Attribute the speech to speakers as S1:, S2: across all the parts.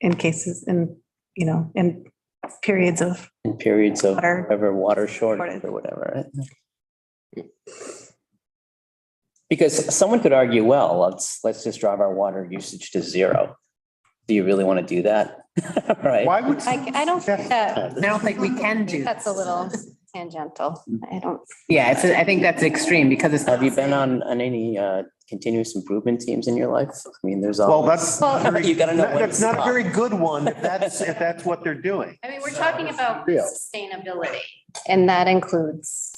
S1: in cases in, you know, in periods of,
S2: in periods of
S1: Water.
S2: whatever water shortage
S1: Shortage.
S2: or whatever. right? Because someone could argue, well, let's, let's just drive our water usage to zero. Do you really want to do that? Right?
S3: Why would?
S4: Like, I don't think that,
S5: I don't think we can do.
S4: that's a little tangential. I don't,
S5: Yeah, it's, I think that's extreme because it's.
S2: Have you been on, on any uh, continuous improvement teams in your life? I mean, there's
S3: Well,
S2: all,
S3: that's.
S4: Well-
S3: very-
S2: You gotta know
S3: that-
S2: when to
S3: That's not a
S2: stop.
S3: very good one, if that's, if that's what they're doing.
S4: I mean, we're talking about
S3: Yeah.
S4: sustainability and that includes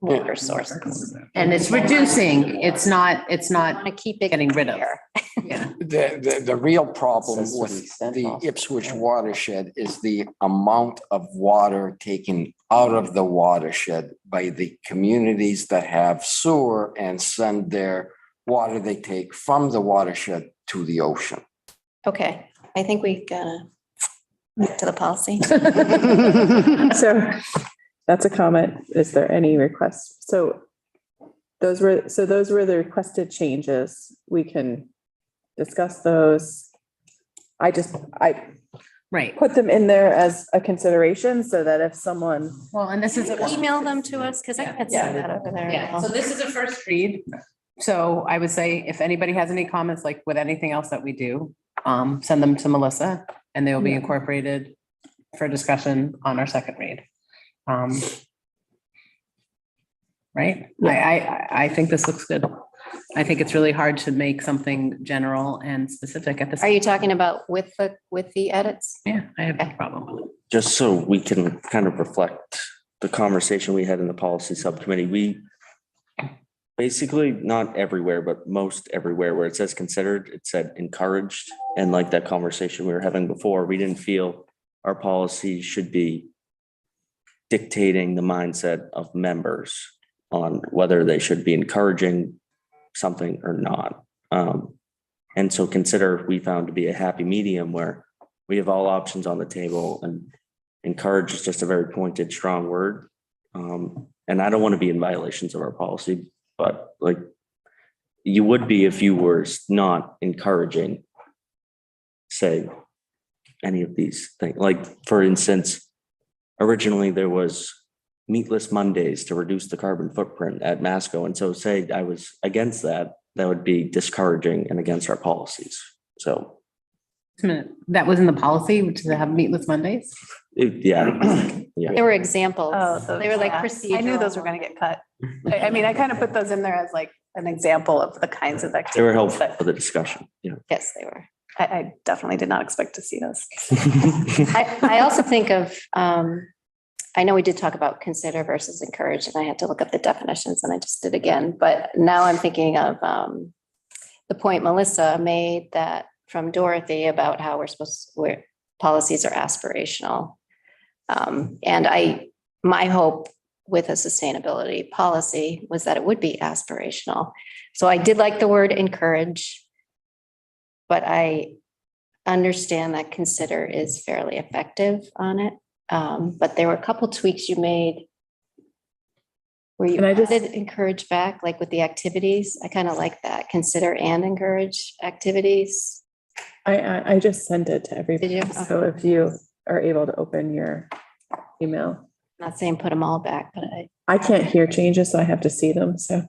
S4: water sources.
S5: And it's reducing, it's not, it's
S4: Want
S5: not,
S4: to keep it.
S5: Getting rid of.
S4: there.
S5: yeah.
S6: The, the, the real problem
S2: Says
S6: with
S2: 30%
S6: the
S2: off.
S6: Ipswich watershed is the amount of water taken out of the watershed by the communities that have sewer and send their water they take from the watershed to the ocean.
S4: Okay, I think we gotta move to the policy.
S7: So that's a comment. Is there any requests? So those were, so those were the requested changes. We can discuss those. I just, I
S5: Right.
S7: put them in there as a consideration so that if someone,
S5: Well, and this is.
S4: Email them to us because I can't see that over
S5: Yeah, so
S4: there.
S5: this is a first read. So I would say if anybody has any comments, like with anything else that we do, um, send them to Melissa and they will be incorporated for discussion on our second read. Um. Right? I, I, I- I think this looks good. I think it's really hard to make something general and specific at this.
S4: Are you talking about with the, with the edits?
S5: Yeah, I have no problem with it.
S8: just so we can kind of reflect the conversation we had in the policy subcommittee, we basically, not everywhere, but most everywhere where it says considered, it said encouraged. And like that conversation we were having before, we didn't feel our policy should be dictating the mindset of members on whether they should be encouraging something or not. Um, and so consider, we found to be a happy medium where we have all options on the table and encourage is just a very pointed, strong word. Um, and I don't want to be in violations of our policy, but like you would be if you were not encouraging, say, any of these things. Like, for instance, originally there was meatless Mondays to reduce the carbon footprint at Masco. And so say I was against that, that would be discouraging and against our policies. So
S5: Just a minute. That was in the policy, which is to have meatless Mondays.
S8: it- yeah,
S4: There were examples.
S1: oh, those-
S4: They were like
S1: yeah.
S4: procedural.
S1: I knew those were going to get cut. I, I mean, I kind of put those in there as like an example of the kinds of
S8: They were
S1: activities,
S8: helpful
S1: but
S8: for the discussion, yeah.
S4: Yes, they were.
S1: I, I definitely did not expect to see those.
S4: I, I also think of, um, I know we did talk about consider versus encourage, and I had to look up the definitions and I just did again, but now I'm thinking of, um, the point Melissa made that from Dorothy about how we're supposed, where policies are aspirational. Um, and I, my hope with a sustainability policy was that it would be aspirational. So I did like the word encourage, but I, understand that consider is fairly effective on it. Um, but there were a couple tweaks you made. Where you
S7: Can I just-
S4: added encourage back, like with the activities. I kind of like that. Consider and encourage activities.
S7: I, I, I just sent it to everybody.
S4: Did you?
S7: So if you are able to open your email,
S4: Not saying put them all back, but I,
S7: I can't hear changes, so I have to see them. So.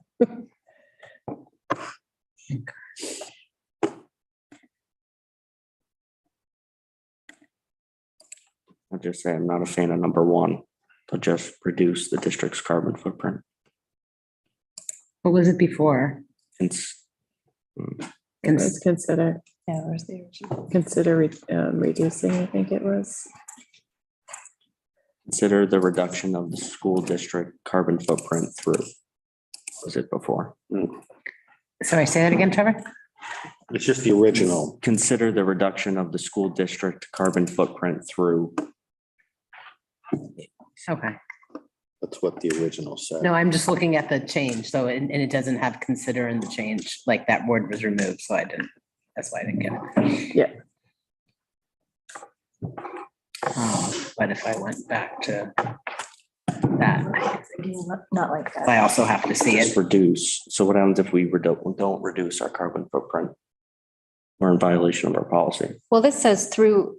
S8: I'll just say I'm not a fan of number one, but just reduce the district's carbon footprint.
S5: What was it before?
S8: It's
S7: Let's consider,
S1: Yeah, where's the original?
S7: consider re- um, reducing, I think it was.
S8: consider the reduction of the school district carbon footprint through. Was it before?
S5: Sorry, say that again, Trevor?
S3: It's just the original.
S8: Consider the reduction of the school district carbon footprint through.
S5: Okay.
S3: That's what the original said.
S5: No, I'm just looking at the change, so, and, and it doesn't have consider in the change, like that word was removed, so I didn't, that's why I didn't get it.
S7: Yeah.
S5: Um, But if I went back to that,
S1: Not like that.
S5: I also have to see it.
S8: Just reduce. So what happens if we redu- we don't reduce our carbon footprint? We're in violation of our policy.
S4: well, this says through